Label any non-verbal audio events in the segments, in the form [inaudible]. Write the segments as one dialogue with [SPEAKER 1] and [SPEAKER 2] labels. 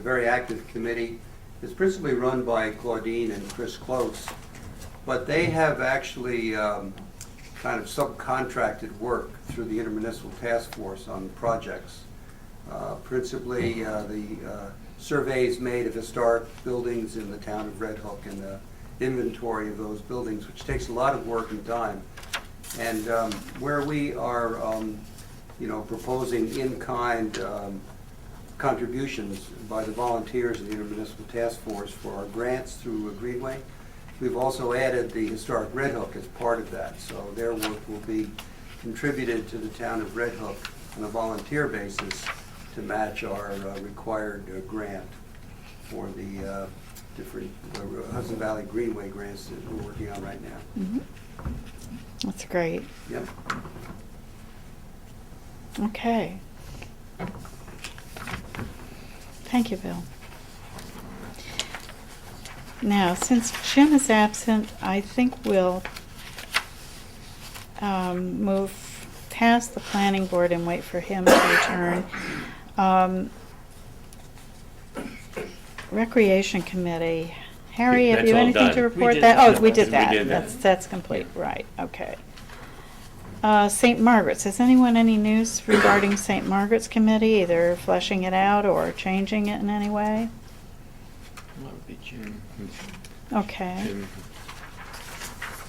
[SPEAKER 1] very active committee. It's principally run by Claudine and Chris Close, but they have actually um, kind of subcontracted work through the intermunicipal task force on projects. Uh, Principally, uh, the uh, surveys made of historic buildings in the town of Red Hook and the inventory of those buildings, which takes a lot of work and time. And um, where we are, um, you know, proposing in-kind um, contributions by the volunteers of the intermunicipal task force for our grants through Greenway, we've also added the historic Red Hook as part of that. So their work will be contributed to the town of Red Hook on a volunteer basis to match our uh, required uh, grant for the uh, different uh, Hudson Valley Greenway grants that we're working on right now.
[SPEAKER 2] That's great.
[SPEAKER 1] Yep.
[SPEAKER 2] Okay. Thank you, Bill. Now, since Jim is absent, I think we'll um, move past the planning board and wait for him to return. Um, Recreation Committee. Harry, have
[SPEAKER 3] That's
[SPEAKER 2] you
[SPEAKER 3] all
[SPEAKER 2] anything
[SPEAKER 3] done.
[SPEAKER 2] to
[SPEAKER 3] We
[SPEAKER 2] report
[SPEAKER 4] did
[SPEAKER 2] that?
[SPEAKER 4] that.
[SPEAKER 2] Oh, we did
[SPEAKER 3] We
[SPEAKER 2] that.
[SPEAKER 3] did that.
[SPEAKER 2] That's, that's complete, right, okay. Uh, St. Margaret's, has anyone any news regarding St. Margaret's Committee, either fleshing it out or changing it in any way?
[SPEAKER 3] That would be Jim.
[SPEAKER 2] Okay,
[SPEAKER 3] Jim.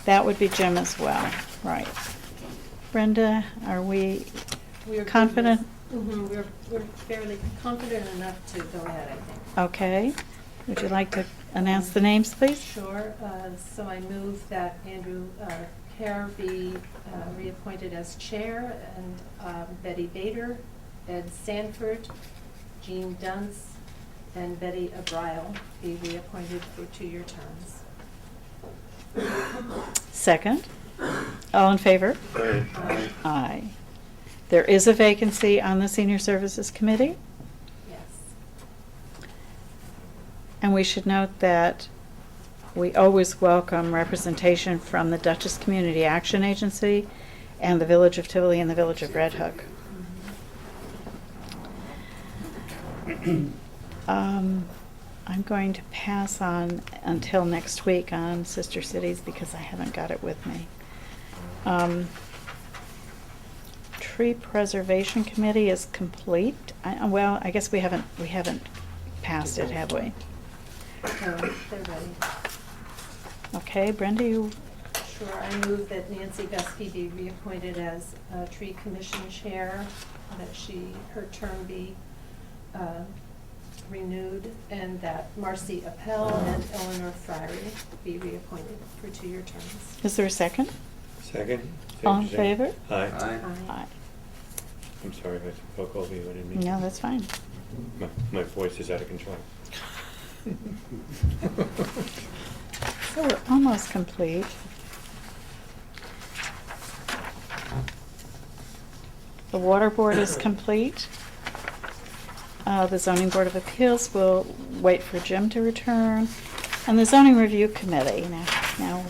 [SPEAKER 2] that would be Jim as well, right. Brenda, are we
[SPEAKER 5] We are good
[SPEAKER 2] confident?
[SPEAKER 5] with- mhm, We're, we're fairly confident enough to go ahead, I think.
[SPEAKER 2] Okay, would you like to announce the names, please?
[SPEAKER 5] Sure, uh, so I move that Andrew uh, Kerr be uh, reappointed as chair, and um, Betty Bader, Ed Sanford, Jean Dunce, and Betty Abrile be reappointed for two-year terms.
[SPEAKER 2] Second? All in favor?
[SPEAKER 5] Uh,
[SPEAKER 2] Aye. There is a vacancy on the Senior Services Committee,
[SPEAKER 5] Yes.
[SPEAKER 2] and we should note that we always welcome representation from the Dutchess Community Action Agency and the Village of Tivoli and the Village of Red Hook.
[SPEAKER 5] Mm-hmm.
[SPEAKER 2] Um, I'm going to pass on until next week on Sister Cities because I haven't got it with me. Um, Tree Preservation Committee is complete. I, uh, well, I guess we haven't, we haven't passed it, have we?
[SPEAKER 5] So they're ready.
[SPEAKER 2] Okay, Brenda, you,
[SPEAKER 5] Sure, I move that Nancy Gusky be reappointed as uh, Tree Commission Chair, that she, her term be uh, renewed, and that Marcy Appel and Eleanor Friary be reappointed for two-year terms.
[SPEAKER 2] is there a second?
[SPEAKER 3] Second?
[SPEAKER 2] All in
[SPEAKER 3] Same, same.
[SPEAKER 2] favor?
[SPEAKER 3] Aye.
[SPEAKER 1] Aye.
[SPEAKER 2] Aye.
[SPEAKER 3] I'm sorry, I spoke over you, I didn't mean.
[SPEAKER 2] No,
[SPEAKER 3] to.
[SPEAKER 2] that's fine.
[SPEAKER 3] My, my voice is out of control.
[SPEAKER 2] So we're almost complete. The water board is complete. Uh, The zoning board of appeals will wait for Jim to return. And the zoning review committee, now, now,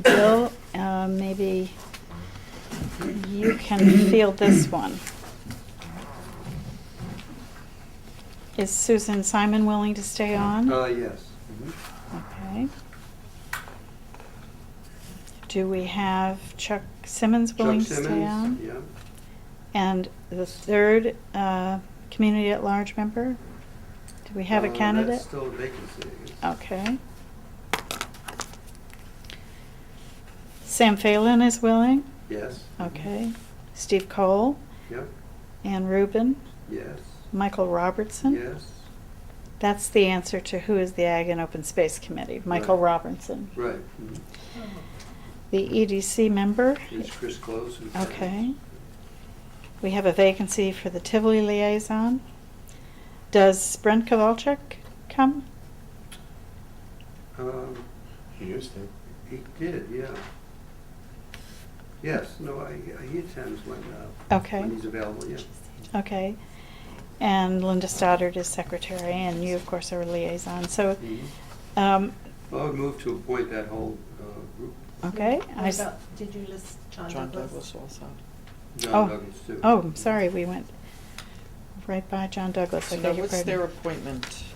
[SPEAKER 2] Bill, uh, maybe you can field this one. Is Susan Simon willing to stay on?
[SPEAKER 1] [laughs] Uh, yes. Mhm.
[SPEAKER 2] Okay. Do we have Chuck Simmons willing
[SPEAKER 1] Chuck
[SPEAKER 2] to stay
[SPEAKER 1] Simmons,
[SPEAKER 2] on?
[SPEAKER 1] yeah.
[SPEAKER 2] And the third, uh, community at large member? Do we have
[SPEAKER 1] Uh,
[SPEAKER 2] a
[SPEAKER 1] That's
[SPEAKER 2] candidate? Oh.
[SPEAKER 1] still a vacancy, I guess.
[SPEAKER 2] Okay. Sam Phelan is willing?
[SPEAKER 1] Yes.
[SPEAKER 2] Okay. Steve Cole?
[SPEAKER 1] Yep,
[SPEAKER 2] Ann Rubin?
[SPEAKER 1] yes,
[SPEAKER 2] Michael Robertson?
[SPEAKER 1] yes,
[SPEAKER 2] That's the answer to who is the Ag and Open Space Committee, Michael
[SPEAKER 1] Right.
[SPEAKER 2] Robertson.
[SPEAKER 1] right. mhm.
[SPEAKER 2] The EDC member?
[SPEAKER 1] It's Chris Close. who's-
[SPEAKER 2] Okay. We have a vacancy for the Tivoli liaison. Does Brent Kowalczyk come?
[SPEAKER 1] Um,
[SPEAKER 3] You used to.
[SPEAKER 1] He did, yeah. Yes, no, I, I- he attends when, uh,
[SPEAKER 2] Okay.
[SPEAKER 1] when he's available, yeah.
[SPEAKER 2] Okay. And Linda Stoddard is secretary, and you, of course, are liaison. So,
[SPEAKER 1] Mhm.
[SPEAKER 2] um,
[SPEAKER 1] I would move to appoint that whole uh, group,
[SPEAKER 2] okay.
[SPEAKER 5] What
[SPEAKER 2] I s-
[SPEAKER 5] about- Did you list John
[SPEAKER 4] John
[SPEAKER 5] Douglas?
[SPEAKER 4] Douglas also.
[SPEAKER 2] Oh.
[SPEAKER 1] John Douglas too.
[SPEAKER 2] Oh, I'm sorry, we went right by John Douglas. I
[SPEAKER 4] So
[SPEAKER 2] beg
[SPEAKER 4] now
[SPEAKER 2] your
[SPEAKER 4] what's their
[SPEAKER 2] pardon.
[SPEAKER 4] appointment?